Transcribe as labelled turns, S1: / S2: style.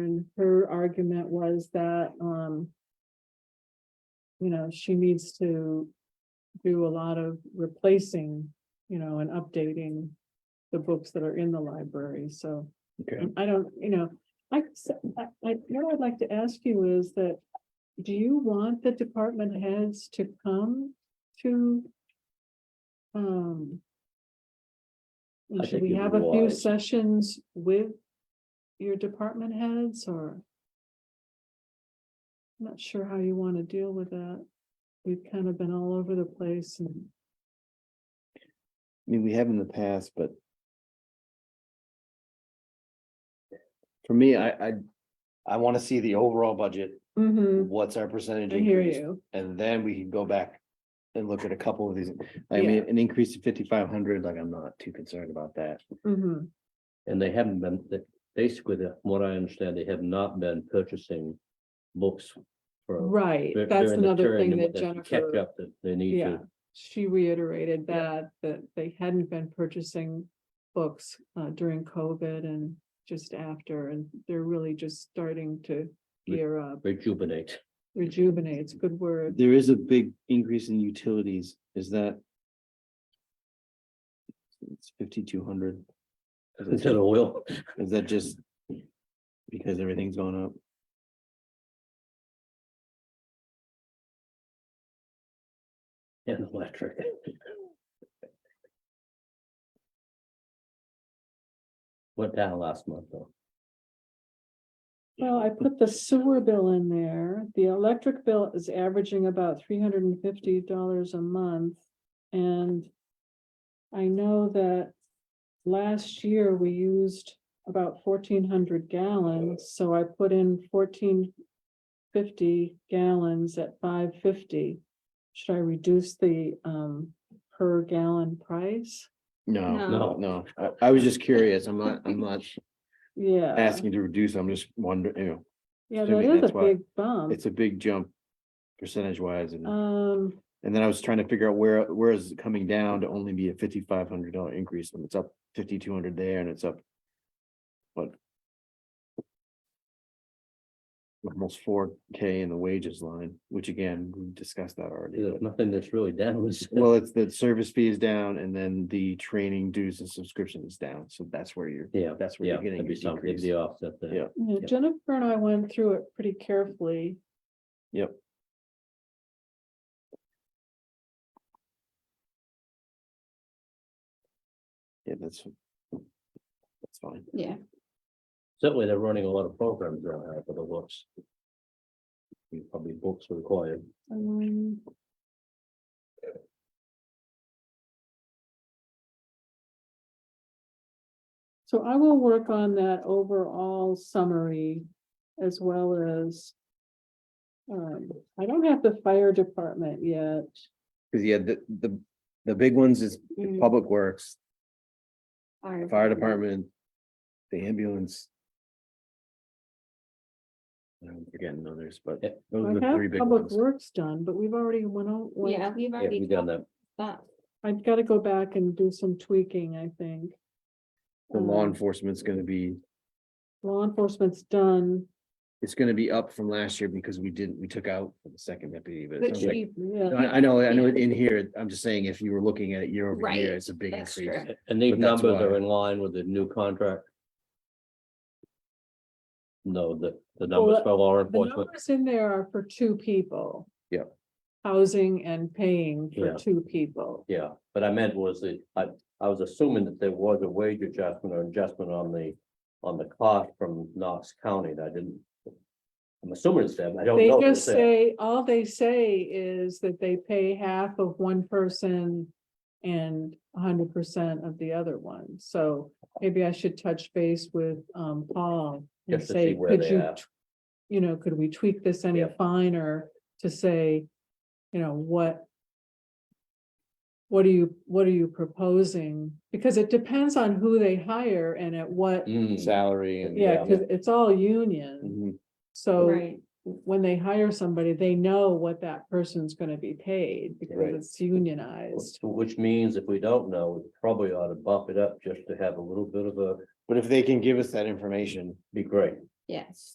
S1: And her argument was that, um. You know, she needs to do a lot of replacing, you know, and updating. The books that are in the library, so
S2: Okay,
S1: um, I don't, you know, I, s- I- I- what I'd like to ask you is that. Do you want the department heads to come to? Um.
S2: I
S1: Should
S2: think
S1: we
S2: you'd
S1: have a few
S2: realize-
S1: sessions with your department heads or? I'm Not sure how you want to deal with that. We've kind of been all over the place and,
S2: I mean, we have in the past, but. For me, I, I, I want to see the overall budget,
S1: Mhm,
S2: what's our percentage
S1: I hear
S2: increase,
S1: you.
S2: and then we can go back. And look at a couple of these, I
S1: Yeah.
S2: mean, an increase to fifty-five hundred, like, I'm not too concerned about that.
S1: Mhm.
S3: And they haven't been, they- basically, the- from what I understand, they have not been purchasing books. for-
S1: Right,
S3: dur-
S1: that's
S3: during the
S1: another
S3: period
S1: thing
S3: and
S1: that
S3: what they
S1: Jennifer.
S3: can Catch up that they need
S1: Yeah,
S3: to.
S1: she reiterated that, that they hadn't been purchasing books uh during COVID and just after, and they're really just starting to
S3: Re-
S1: gear up,
S3: rejuvenate.
S1: rejuvenate, it's a good word.
S2: There is a big increase in utilities, is that? It's fifty-two hundred,
S3: Instead of oil,
S2: is that just? Because everything's going up?
S3: and electric. Went down last month, though.
S1: Well, I put the sewer bill in there, the electric bill is averaging about three hundred and fifty dollars a month, and I know that last year we used about fourteen hundred gallons, so I put in fourteen fifty gallons at five fifty. Should I reduce the um per gallon price?
S2: No,
S3: No.
S2: no, no, I, I was just curious, I'm not, I'm not
S1: Yeah.
S2: asking to reduce, I'm just wondering, you
S1: Yeah,
S2: assuming
S1: that is
S2: that's
S1: a
S2: why
S1: big
S2: know,
S1: bump.
S2: it's a big jump. Percentage wise, and,
S1: Um,
S2: and then I was trying to figure out where, where is it coming down to only be a fifty-five hundred dollar increase, and it's up fifty-two hundred there and it's up. But. Almost four K in the wages line, which again, we discussed that already.
S3: There's
S2: but-
S3: nothing that's really down. It's-
S2: Well, it's the service fee is down and then the training dues and subscription is down, so that's where you're,
S3: Yeah,
S2: that's where
S3: yeah,
S2: you're
S3: it'd
S2: getting
S3: be
S2: your
S3: something, it'd
S2: decrease.
S3: be offset there.
S2: Yeah.
S1: Yeah,
S3: Yep.
S1: Jennifer and I went through it pretty carefully.
S2: Yep. Yeah, that's. That's fine.
S4: Yeah,
S3: Certainly, they're running a lot of programs around here for the books. Probably books required.
S1: Um, So I will work on that overall summary as well as. Um, I don't have the fire department yet.
S2: Cause yeah, the, the, the big ones is
S3: Mm.
S2: Public Works,
S4: fire.
S2: Mm, Fire Department, the ambulance. I'm forgetting others, but
S3: Yeah.
S2: those
S1: I
S2: are the
S1: have
S2: three big
S1: Uh-huh. public
S2: ones.
S1: works done, but we've already went on. went-
S4: Yeah, we've
S3: Yeah,
S4: already
S3: we done
S4: done
S3: that.
S4: that.
S1: I've got to go back and do some tweaking, I think.
S2: The law
S1: Um,
S2: enforcement's gonna be,
S1: Law enforcement's done.
S2: it's gonna be up from last year because we didn't, we took out the second deputy, but. it
S4: Which
S2: sounds like-
S4: we,
S1: Yeah.
S2: No, I, I know, I know
S4: Yeah.
S2: in here, I'm just saying, if you were looking at it year over
S4: Right,
S2: year, it's a big
S4: that's
S2: increase.
S4: true.
S3: And these
S2: But that's
S3: numbers are
S2: why-
S3: in line with the new contract. No, the,
S1: Well,
S3: the numbers for law
S1: The
S3: enforcement,
S1: numbers in there are for two people.
S2: Yep.
S1: Housing and paying for
S3: Yeah.
S1: two people.
S3: yeah, but I meant was that, I, I was assuming that there was a wage adjustment or adjustment on the, on the cost from Knox County, that I didn't. I'm assuming it's them, I don't
S1: They
S3: know. if it's
S1: just
S3: them.
S1: say, all they say is that they pay half of one person and hundred percent of the other one. So maybe I should touch base with um Paul and
S3: Just to
S1: say,
S3: see where
S1: could
S3: they
S1: you
S3: at."
S1: t- you know, could we tweak this any
S3: Yeah.
S1: finer to say, you know, what what are you, what are you proposing? Because it depends on who they hire and at what,
S3: Mm, Mm-hmm.
S2: Salary and. uh,
S1: yeah, because it's all union.
S2: Mhm.
S1: So
S4: Right,
S1: when they hire somebody, they know what that person's gonna be paid because
S3: Right.
S1: it's unionized.
S3: Which means if we don't know, we probably ought to bump it up just to have a little bit of a,
S2: But if they can give us that information,
S3: be great.
S4: yes.